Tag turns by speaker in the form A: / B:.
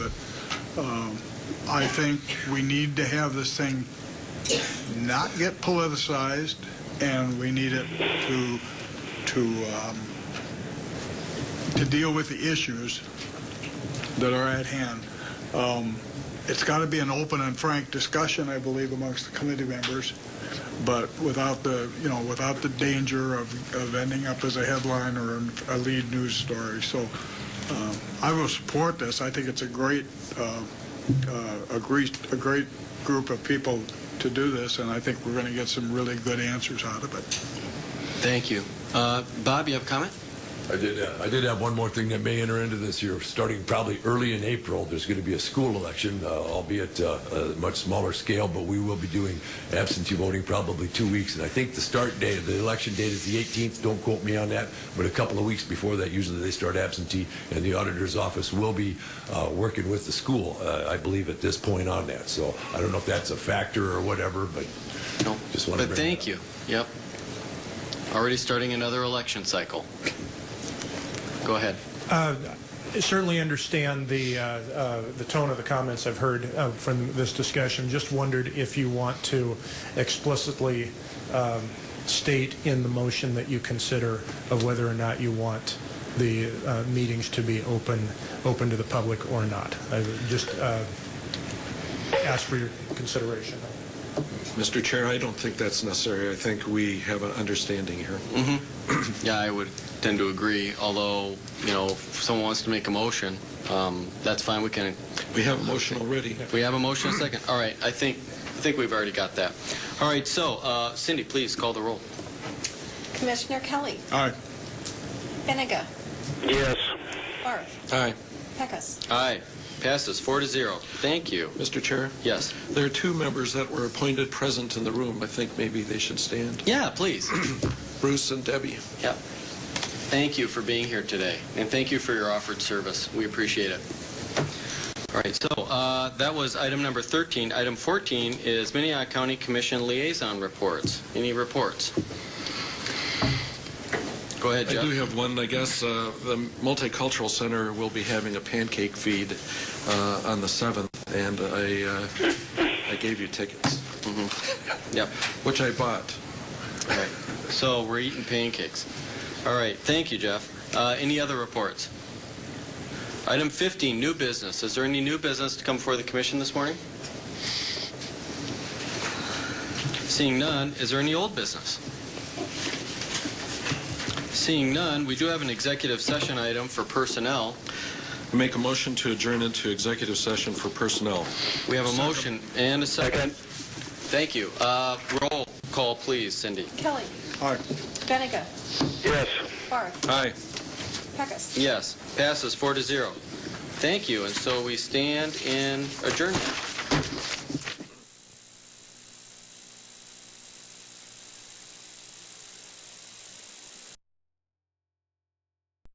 A: Um, I think we need to have this thing not get politicized, and we need it to, to, um, to deal with the issues that are at hand. Um, It's got to be an open and frank discussion, I believe, amongst the committee members, but without the, you know, without the danger of, of ending up as a headline or a lead news story. So uh, I will support this. I think it's a great, uh, uh, a great, a great group of people to do this, and I think we're going to get some really good answers out of it.
B: Thank you. Uh, Bob, you have a comment?
C: I did. Uh, I did have one more thing that may enter into this year. Starting probably early in April, there's going to be a school election, uh, albeit uh, a much smaller scale. But we will be doing absentee voting probably two weeks, and I think the start date of the election date is the 18th. Don't quote me on that, but a couple of weeks before that, usually they start absentee, and the auditor's office will be uh, working with the school, uh, I believe, at this point on that. So I don't know if that's a factor or whatever, but
B: No.
C: Just wanted to
B: But
C: bring
B: thank
C: that
B: you. Yep. Already starting another election cycle. Go ahead.
D: Uh, Certainly understand the, uh, uh, the tone of the comments I've heard uh, from this discussion. Just wondered if you want to explicitly um, state in the motion that you consider of whether or not you want the uh, meetings to be open, open to the public or not. I would Just uh, ask for your consideration.
E: Mr. Chair, I don't think that's necessary. I think we have an understanding here.
B: Yeah, I would tend to agree, although, you know, if someone wants to make a motion, um, that's fine, we can,
E: We have a motion already.
B: we have a motion, a second. All right, I think, I think we've already got that. All right, so uh, Cindy, please call the roll.
F: Commissioner Kelly.
A: Aye.
F: Benega.
G: Yes.
F: Barth.
E: Aye.
F: Pecos.
B: Aye, passes four to zero. Thank you.
E: Mr. Chair,
B: Yes.
E: there are two members that were appointed present in the room. I think maybe they should stand.
B: Yeah, please.
E: Bruce and Debbie.
B: Thank you for being here today, and thank you for your offered service. We appreciate it. All right, so uh, that was item number 13. Item 14 is Minnehaha County Commission liaison reports. Any reports? Go ahead,
E: I do
B: Jeff.
E: have one, I guess. Uh, The Multicultural Center will be having a pancake feed uh, on the 7th, and I uh, I gave you tickets.
B: Yep.
E: Which I bought.
B: All right. So we're eating pancakes. All right, thank you, Jeff. Uh, Any other reports? Item 15, new business. Is there any new business to come before the commission this morning? Seeing none, is there any old business? Seeing none, we do have an executive session item for personnel.
E: Make a motion to adjourn into executive session for personnel.
B: We have a
E: Second.
B: motion and a
G: Second.
B: second. Thank you. Uh, Roll call, please, Cindy.
F: Kelly.
A: Aye.
F: Benega.
G: Yes.
F: Barth.
E: Aye.
F: Pecos.
B: Yes, passes four to zero. Thank you, and so we stand in adjournment.